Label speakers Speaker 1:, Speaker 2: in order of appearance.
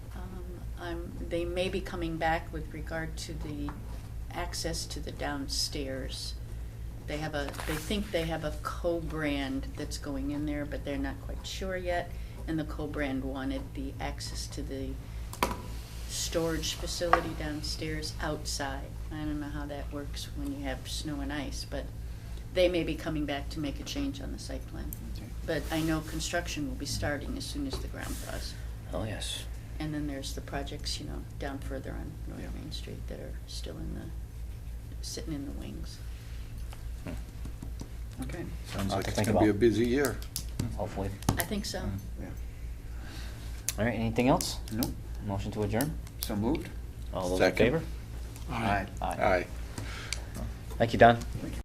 Speaker 1: time, Um, they may be coming back with regard to the access to the downstairs. They have a, they think they have a co-brand that's going in there, but they're not quite sure yet. And the co-brand wanted the access to the storage facility downstairs outside. I don't know how that works when you have snow and ice, but they may be coming back to make a change on the site plan. But I know construction will be starting as soon as the ground thaws.
Speaker 2: Oh, yes.
Speaker 1: And then there's the projects, you know, down further on North
Speaker 3: Yeah.
Speaker 1: Main Street that are still in the, sitting in the wings.
Speaker 2: Hmm.
Speaker 3: Okay.
Speaker 2: Sounds
Speaker 3: Uh,
Speaker 2: like
Speaker 3: it's
Speaker 2: think
Speaker 3: gonna be a
Speaker 2: about.
Speaker 3: busy year.
Speaker 2: Hopefully.
Speaker 1: I think so.
Speaker 3: Yeah.
Speaker 2: All right, anything else?
Speaker 3: Nope,
Speaker 2: Motion to adjourn?
Speaker 3: so moved.
Speaker 2: All those in
Speaker 3: Second.
Speaker 2: favor?
Speaker 3: Aye.
Speaker 2: Aye.
Speaker 3: Aye.
Speaker 2: Thank you, Don.